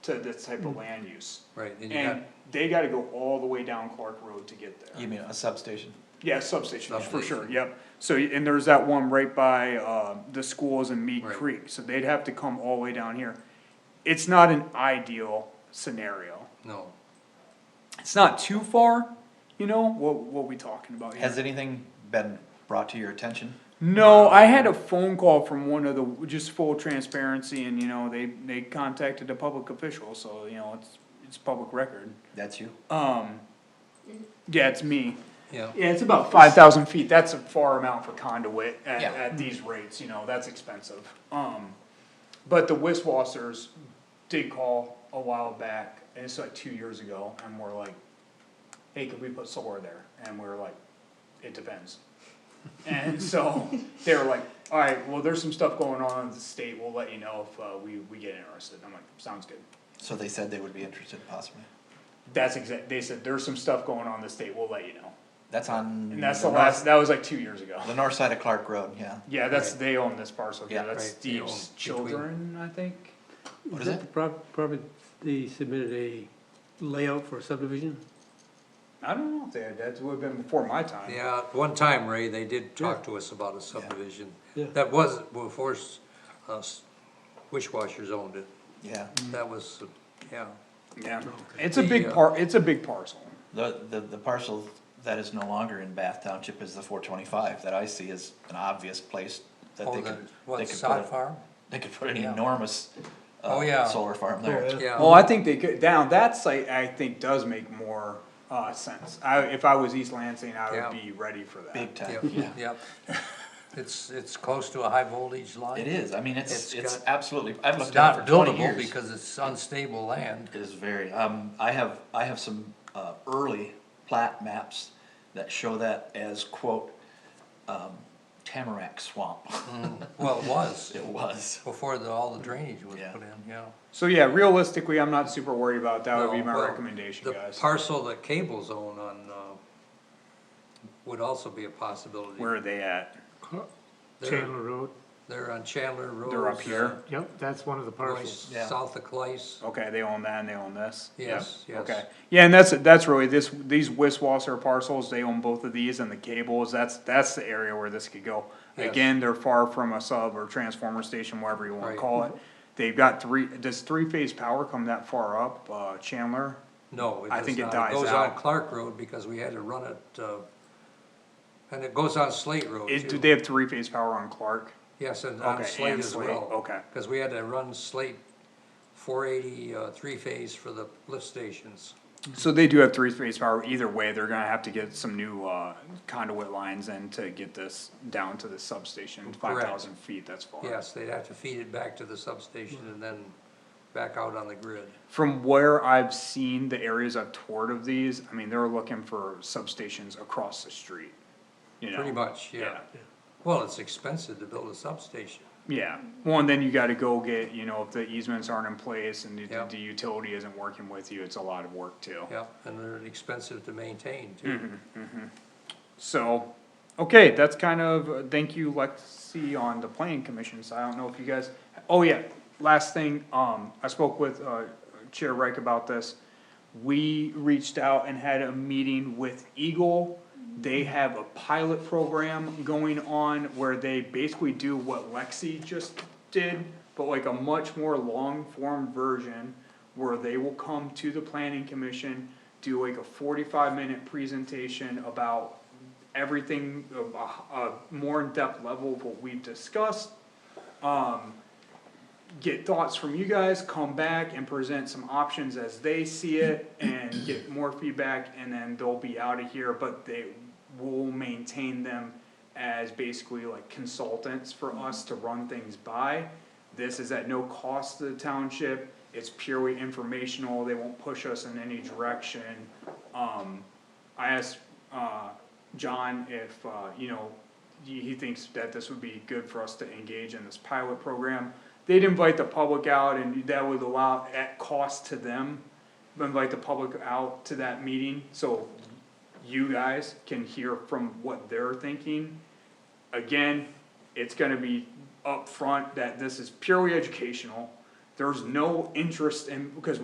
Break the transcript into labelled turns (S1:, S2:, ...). S1: to this type of land use.
S2: Right, then you
S1: And
S2: got
S1: they gotta go all the way down Clark Road to get there.
S3: You mean a substation?
S1: Yeah, substation, for sure,
S2: Substation.
S1: yep. So, and there's that one right by, uh, the schools in Mead
S2: Right.
S1: Creek, so they'd have to come all the way down here. It's not an ideal scenario.
S2: no,
S1: It's not too far, you know, what, what we talking about here?
S3: Has anything been brought to your attention?
S1: No, I had a phone call from one of the, just full transparency and, you know, they, they contacted a public official, so, you know, it's, it's public record.
S3: That's you?
S1: Um, yeah, it's me.
S2: yeah,
S1: Yeah, it's about five thousand feet, that's a far amount for conduit at,
S3: Yeah.
S1: at these rates, you know, that's expensive. Um, but the Wiswassers did call a while back, and it's like two years ago, and we're like, hey, could we put solar there? And we were like, it depends. And so, they were like, alright, well, there's some stuff going on in the state, we'll let you know if, uh, we, we get interested, And I'm like, sounds good.
S3: So they said they would be interested possibly.
S1: That's exact, they said, there's some stuff going on in the state, we'll let you know,
S3: That's on.
S1: and that's the
S3: north-
S1: last, that was like two years ago.
S3: The north side of Clark Road, yeah.
S1: Yeah, that's, they own this parcel, yeah,
S3: Yeah.
S1: that's
S2: Right, they
S1: Steve's
S2: own between-
S1: children, I think.
S3: What is
S4: that
S3: it?
S4: prob- Probably, they submitted a layout for subdivision?
S1: I don't know if they had, that would've been before my time.
S2: yeah, at one time, Ray, they did talk to us about a subdivision.
S4: Yeah.
S2: That was before s- us, Wishwashers owned it,
S3: Yeah.
S1: Mm-hmm.
S2: that was, uh, yeah, Oh,
S1: Yeah, it's a big
S2: Yeah.
S1: par, it's a big parcel.
S3: The, the, the parcel that is no longer in Bath Township is the four twenty-five that I see as an obvious place that
S2: Oh,
S3: they
S2: the-
S3: could.
S2: what,
S3: they could
S2: sod
S3: put a-
S2: farm?
S3: They could put an
S2: Yeah.
S3: enormous,
S2: Oh, yeah.
S3: uh, solar farm there.
S2: yeah.
S1: Well, I think they could, down, that site, I think, does make more, uh, sense. I, if I was East Lansing, I
S2: Yeah.
S1: would be ready for that.
S3: Big time, yeah.
S2: Yep, yep. It's, it's close to a high voltage line.
S3: It is, I mean,
S2: It's
S3: it's, it's
S2: got-
S3: absolutely, I've
S2: It's
S3: looked at it
S2: not
S3: for twenty
S2: buildable
S3: years.
S2: because it's unstable land.
S3: It is very, um, I have, I have some, uh, early plat maps that show that as quote, um, tamarack swamp.
S2: Well, it was,
S3: It was.
S2: before the, all the drainage was
S3: Yeah.
S2: put in, yeah.
S1: So yeah, realistically, I'm not super worried about, it. that would be
S2: Well,
S1: my
S2: well,
S1: recommendation, guys.
S2: The parcel that Cable's own on, uh, would also be a possibility.
S1: Where are they at?
S2: They're,
S5: Chandler Road,
S2: they're on Chandler Road.
S1: They're up here?
S5: yep, that's one of the
S2: Going
S5: parcels.
S3: Yeah.
S2: south of Clay's,
S1: Okay, they own that and they own this? Yep,
S2: Yes, yes.
S1: Okay, yeah, and that's, that's really, this, these Wiswasser parcels, they own both of these and the cables, that's, that's the area where this could go.
S2: Yes.
S1: Again, they're far from a sub or transformer station, whatever you wanna
S2: Right.
S1: call it. They've got three, does three-phase power come that far up, uh, Chandler?
S2: no, it
S1: I
S2: does
S1: think it
S2: not.
S1: dies
S2: Goes
S1: out.
S2: on Clark Road because we had to run it, uh, and it goes on Slate Road
S1: Is, do
S2: too.
S1: they have three-phase power on Clark?
S2: Yes, and
S1: Okay,
S2: on Slate
S1: and
S2: as
S1: Slate,
S2: well.
S1: okay.
S2: Cause we had to run Slate four eighty, uh, three phase for the lift stations.
S1: So they do have three-phase power, either way, they're gonna have to get some new, uh, conduit lines in to get this down to the substation, five thousand feet, that's far.
S2: Yes, they'd have to feed it back to the substation and then back out on the grid.
S1: From where I've seen the areas I've toured of these, I mean, they're looking for substations across the street. You know?
S2: Pretty much, yeah. Well, it's expensive to build a substation.
S1: Yeah, well, and then you gotta go get, you know, if the easements aren't in place and the,
S2: Yeah.
S1: the utility isn't working with you, it's a lot of work too.
S2: Yeah, and they're expensive to maintain too.
S1: So, okay, that's kind of, uh, thank you Lexi on the planning commission, so I don't know if you guys, oh yeah, last thing, um, I spoke with, uh, Chair Reich about this. We reached out and had a meeting with Eagle, they have a pilot program going on where they basically do what Lexi just did, but like a much more long-form version where they will come to the planning commission, do like a forty-five minute presentation about everything, of a, a more in-depth level of what we've discussed. Um, get thoughts from you guys, come back and present some options as they see it and get more feedback and then they'll be out of here, but they will maintain them as basically like consultants for us to run things by. This is at no cost to the township, it's purely informational, they won't push us in any direction. Um, I asked, uh, John if, uh, you know, he, he thinks that this would be good for us to engage in this pilot program. They'd invite the public out and that would allow, at cost to them, invite the public out to that meeting, so you guys can hear from what they're thinking. Again, it's gonna be upfront that this is purely educational. There's no interest in, because